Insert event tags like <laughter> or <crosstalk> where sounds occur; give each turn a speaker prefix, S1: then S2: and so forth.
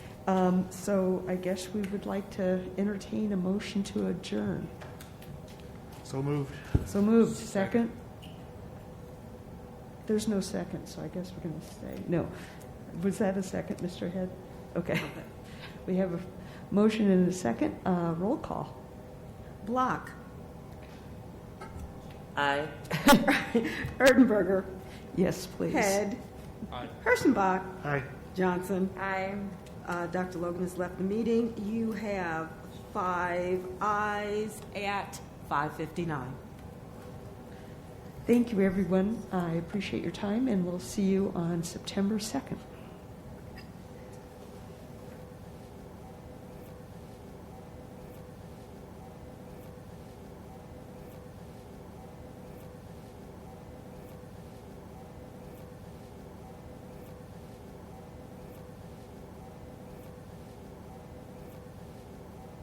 S1: Um, So I guess we would like to entertain a motion to adjourn.
S2: So moved.
S1: So moved, second? There's no second, so I guess we're going to say, no. Was that a second, Mr. Head? Okay. We have a motion and a second. Uh, Roll call.
S3: Block.
S4: Aye.
S3: <laughs> Erdenberger.
S1: Yes, please.
S3: Head. Herschenbach.
S2: Aye.
S3: Johnson.
S4: Aye.
S3: Uh, Dr. Logan has left the meeting. You have five ayes at 5:59.
S1: Thank you, everyone. I appreciate your time, and we'll see you on September 2nd.